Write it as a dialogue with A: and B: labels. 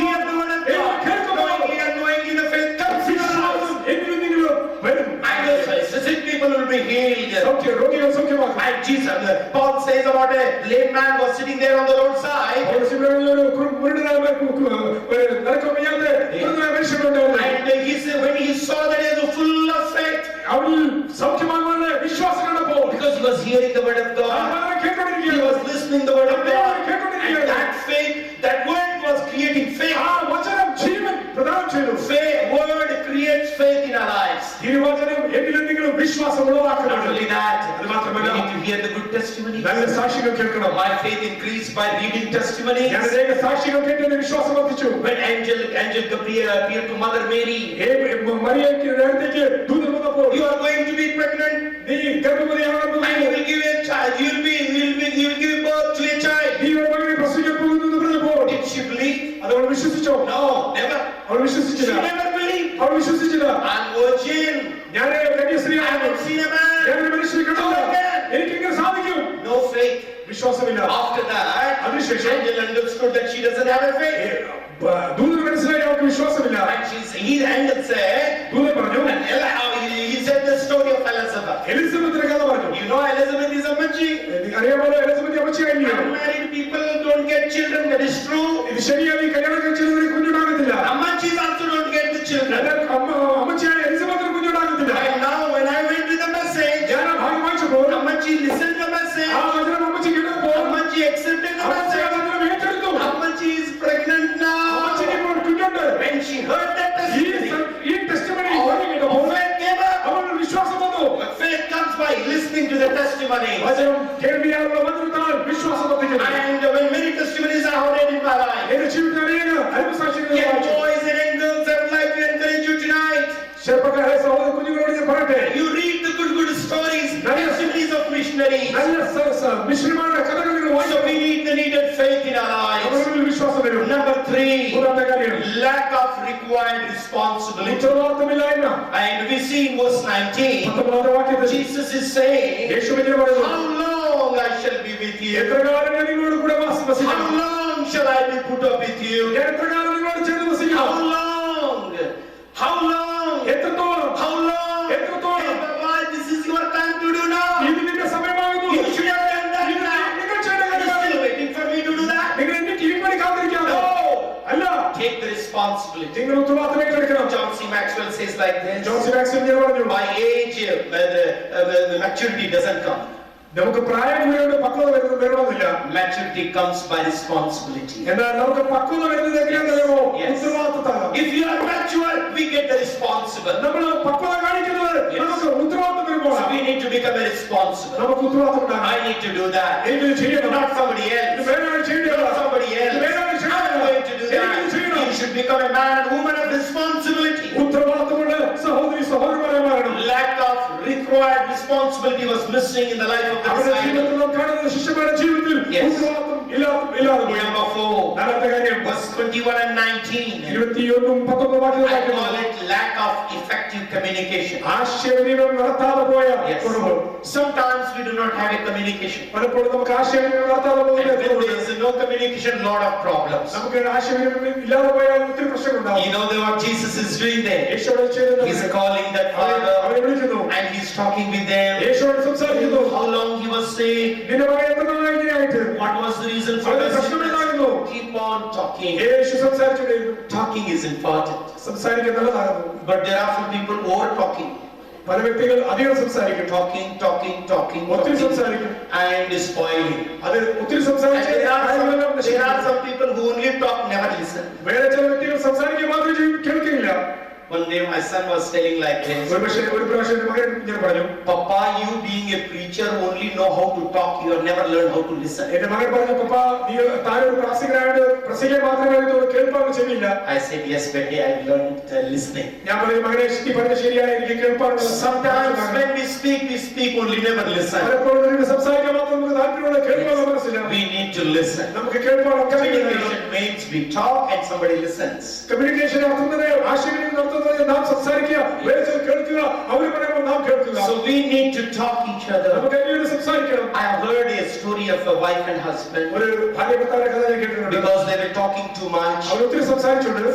A: And Jesus, Paul says about a lame man was sitting there on the roadside.
B: ಅವನು ಸಿಂಹಗಳವರು ಕುರು- ಕುರುಡನ ಮ- ಕು- ಕು- ನರಕ ಮುಯ್ಯಂತೆ ಕುರುಡನ ಮನುಷ್ಯಗೊಂಡ ಅವನು.
A: And he said, when he saw that he was full of faith,
B: ಅವನು ಸೌಖ್ಯವಾಗುವ ವಿಶ್ವಾಸ ಕಾಣಪ್ಪ
A: because he was hearing the word of God, he
B: ಕೇಳ್ಕೊಂಡಿದ್ದೀಯ
A: was listening the word of God, and that faith, that word was creating faith.
B: ఆ వచనం జీవన్ ప్రదానం చేయను
A: Faith, word creates faith in our lives.
B: తిరువచనం ఎన్నిలెన్నికలు విశ్వాసంలో
A: Not
B: ఆకలి
A: only that, we need to hear the good testimony.
B: నన్ను సాక్షిగా కేట్కడం
A: My faith increased by reading testimonies.
B: ఎనదేక సాక్షిగా కేట్టే విశ్వాసం వచ్చిచు
A: When angel, angel Gabriel appeared to Mother Mary,
B: ఏ మరియకి రేడికి దూదన పో
A: you are going to be pregnant,
B: నీ గర్భమది
A: and you
B: ఆనందం
A: will give a child. You will be, you will be, you will give birth to a child.
B: నీ మగని ప్రసూయ పోగును ప్రజపోవటి
A: Did she believe?
B: అదను విశ్వసించు
A: No, never.
B: అదను
A: She
B: విశ్వసించిన
A: never believed.
B: అదను విశ్వసించిన
A: I'm virgin.
B: జ్ఞానే కన్యశ్రీ
A: I
B: ఆనందం
A: haven't seen a man.
B: జ్ఞాన మనిషి కడవ ఏకంగా సాధికం
A: No faith.
B: విశ్వాసం ఇలా
A: After that,
B: Abhishek.
A: angel understood that she doesn't have a faith,
B: దూదన మనిషి యొక్క విశ్వాసం ఇలా
A: and she's he angel said.
B: దూదన പറഞ്ഞു
A: And Eli, he he said the story of Elizabeth.
B: Elizabeth ಕಥೆ പറഞ്ഞു
A: You know Elizabeth is a Machi.
B: അറിയാമല്ലോ Elizabeth അമ്മച്ചിയായിരുന്നു
A: Unmarried people don't get children. That is true.
B: ഇത് ശരിയായി കല്യാണം കഴിച്ചതിന് കുഞ്ഞുണ്ടാകത്തില്ല
A: Amachis also don't get the children.
B: എന്നാൽ അമ്മ അമ്മച്ചിയായ എലിസബത്തിന് കുഞ്ഞുണ്ടാകത്തില്ല
A: And now when I went with the message,
B: ഞാൻ ആ ഭാഗ്യം വായിച്ചപ്പോൾ
A: Amachi listened to the
B: ആ
A: message.
B: വചനം അമ്മച്ചി കേട്ടപ്പോൾ
A: Amachi accepted the
B: അമ്മച്ചി ആ
A: message.
B: വചനം ഏറ്റെടുത്തു
A: Amachi is pregnant
B: അമ്മച്ചിക്ക്
A: now.
B: ഇപ്പോൾ കുഞ്ഞുണ്ട്
A: When she heard that
B: ഈ
A: testimony,
B: സ- ഈ ടെസ്റ്റിമണി
A: all
B: ഓടി കേട്ടപ്പോൾ
A: faith gave up.
B: അവനൊരു വിശ്വാസം വന്നു
A: But faith comes by listening to the testimony.
B: വചനം കേൾവിയാലുള്ള വചനത്താൽ വിശ്വാസം വർദ്ധിക്കുന്നു
A: And when many testimonies are heard in my life,
B: എന്റെ ജീവിതത്തിൽ അനേക അനുഭവസാക്ഷികൾ ഞാൻ
A: young
B: വായിച്ചു.
A: boys and young girls, I would like to encourage you tonight.
B: ചെറുപ്പക്കാരെ സഹോദര കുഞ്ഞുങ്ങളോട് ഞാൻ പറയട്ടെ
A: You read the good, good stories, testimonies of missionaries.
B: നല്ല സ- സ- മിശ്രമാരുടെ കഥകൾ നിങ്ങൾ
A: So
B: വായിച്ചു
A: we need the needed faith in our lives.
B: അവരോട് വിശ്വാസം വരും
A: Number three,
B: മൂന്നാമത്തെ കാര്യം
A: lack of required responsibility.
B: ഉത്തരവാദിത്തമില്ലായ്മ
A: And we see in verse 19,
B: പത്തൊമ്പതാമത്തെ വാക്യത്തിൽ
A: Jesus is saying,
B: യേശു ഇങ്ങനെ പറയുന്നു
A: How long I shall be with you?
B: എത്ര കാലം ഞാൻ നിങ്ങളോട് കൂടെ വാസ-
A: How
B: വസിക്കും
A: long shall I be put up with you?
B: ഞാൻ എത്ര കാലം നിങ്ങളോട് ചേർന്ന്
A: How
B: വസിക്കണം
A: long? How long?
B: എത്രത്തോളം
A: How long? Hey,
B: എത്രത്തോളം
A: Baba, this is your time to do now.
B: ഇത് നിന്റെ സമയമാകുന്നു
A: You
B: ഇത്
A: should have done that
B: നിങ്ങൾ
A: now. Are
B: ചെയ്യേണ്ട
A: you
B: കാര്യമാണ്
A: still waiting for me to do that?
B: നിങ്ങൾ എന്റെ കീഴ്പടി കാത്തിരിക്കാമോ
A: No.
B: അല്ല
A: Take the responsibility.
B: നിങ്ങൾ ഉത്തരവാദിത്തം ഏറ്റെടുക്കണം
A: John C. Maxwell says like this.
B: John C Maxwell ഇങ്ങനെ പറഞ്ഞു
A: By age, uh, the, uh, the- the maturity doesn't come.
B: നമുക്ക് പ്രായം കൂടിയോട് പക്വത വരുന്നത് വരണമെന്നില്ല
A: Maturity comes by responsibility.
B: എന്നാൽ നമുക്ക് പക്വത വരുന്നത് എങ്ങനെയാണെന്നറിയാമോ
A: Yes.
B: ഉത്തരവാദിത്തത്താണ്
A: If you are mature, we get the responsible.
B: നമ്മൾ പക്വത കാണിക്കുന്നത്
A: Yes.
B: നമുക്ക് ഉത്തരവാദിത്തം
A: So
B: വരുമ്പോഴാണ്
A: we need to become a responsible.
B: നമുക്ക് ഉത്തരവാദിത്തം ഉണ്ടാകണം
A: I need to do that.
B: എനിക്കിത് ചെയ്യണം
A: Not somebody
B: ഇത്
A: else.
B: വേറൊരാൾ ചെയ്യേണ്ടതാണ്.
A: Not somebody else.
B: Where are you
A: I'm
B: saying
A: going
B: that?
A: to do
B: Where are you saying
A: that.
B: that?
A: You should become a man and woman of responsibility.
B: ഉത്തരവാദിത്തമുള്ള സഹോദരി സഹോദരന്മാരെ മാറണം
A: Lack of required responsibility was missing in the life of the
B: അവരുടെ
A: disciple.
B: ജീവിതത്തിൽ നാം കാണുന്ന ശിഷ്യന്മാരുടെ ജീവിതത്തിൽ
A: Yes.
B: ഉത്തരവാദിത്തം ഇല്ലാതെ ഇല്ലാതെ പോയി
A: Number four,
B: നാലാമത്തെ കാര്യം
A: verse 21 and 19.
B: ഇരുപത്തിയൊന്നും പത്തൊമ്പത് വാക്യങ്ങൾ
A: I
B: വായിക്കുന്നു.
A: call it lack of effective communication.
B: ആശയവിനിമയം നടത്താതെ പോയ
A: Yes.
B: കുറവ്
A: Sometimes we do not have a communication.
B: പലപ്പോഴും നമുക്ക് ആശയവിനിമയം നടത്താതെ
A: And
B: പോകുന്ന
A: when
B: കുറവുണ്ട്.
A: there is no communication, lot of problems.
B: നമുക്ക് ആശയവിനിമയം ഇല്ലാതെ പോയാൽ ഒത്തിരി പ്രശ്നങ്ങളുണ്ടാവും
A: You know that what Jesus is doing there?
B: യേശു അവിടെ ചെയ്തത്
A: He's calling that
B: അവരെ-
A: father
B: അവരെ വിളിക്കുന്നു
A: and he's talking with them.
B: യേശുവോട് സംസാരിക്കുന്നു
A: How long he was saying,
B: നിന്റെ മകൻ എത്ര നാളായി ഇങ്ങനെയായിട്ട്
A: what was the reason for
B: അവരുടെ
A: this?
B: പ്രശ്നമെന്തായിരുന്നു?
A: Keep on talking.
B: Yeshu സംസാരിച്ചുകൊണ്ടിരുന്നു
A: Talking is important.
B: സംസാരിക്കാൻ നല്ലതാകുന്നു
A: But there are few people over talking.
B: പല വ്യക്തികൾ അധികം സംസാരിക്കും
A: Talking, talking, talking,
B: ഒത്തിരി
A: talking.
B: സംസാരിക്കും
A: And spoiling.
B: അത് ഒത്തിരി
A: And
B: സംസാരിച്ച്
A: there are
B: കാര്യങ്ങളെല്ലാം
A: some, there are
B: നശിപ്പിക്കും.
A: some people who only talk, never listen.
B: വേറെ ചില വ്യക്തികൾ സംസാരിക്കുക മാത്രം ചെയ്യും കേൾക്കില്ല
A: One day my son was telling like this,
B: ഒരു പക്ഷേ ഒരു പ്രാവശ്യം എൻ്റെ മകൻ ഞാൻ പറഞ്ഞു
A: Papa, you being a preacher only know how to talk, you have never learned how to listen.
B: എന്റെ മകൻ പറഞ്ഞു പപ്പ നീ താഴെ ഒരു പ്രാസികനായിട്ട് പ്രസംഗിക്കാൻ മാത്രമേ അറിയത്തുള്ളൂ കേൾപ്പാൻ ചെവിയില്ല
A: I said, yes, Betty, I learned uh, listening.
B: ഞാൻ പറഞ്ഞു മകനെ നീ പറഞ്ഞ ശരിയാണ് എനിക്ക് കേൾപ്പാനുള്ള
A: Sometimes when we speak, we speak only, never listen.
B: പലപ്പോഴും നിനക്ക് സംസാരിക്കാൻ മാത്രം നമുക്ക് താല്പര്യമുള്ള കേൾപ്പാനുള്ള മനസ്സില്ല
A: We need to listen.
B: നമുക്ക് കേൾപ്പാനുള്ള
A: Communication means we talk and somebody listens.
B: Communication അർത്ഥം തന്നെ ആശയവിനിമയം നടത്തുന്നത് നാം സംസാരിക്കുക വേറെ ചിലർ കേൾക്കുക അവർ പറയുമ്പോൾ നാം കേൾക്കുക
A: So we need to talk each other.
B: നമുക്ക് അതിനുവേണ്ടി സംസാരിക്കണം
A: I have heard a story of a wife and husband
B: ഒരു ഭാര്യ ഭർത്താവിന്റെ കഥ ഞാൻ കേട്ടിട്ടുണ്ട്
A: because they were talking too much.
B: അവർ ഒത്തിരി സംസാരിച്ചിട്ടുണ്ട്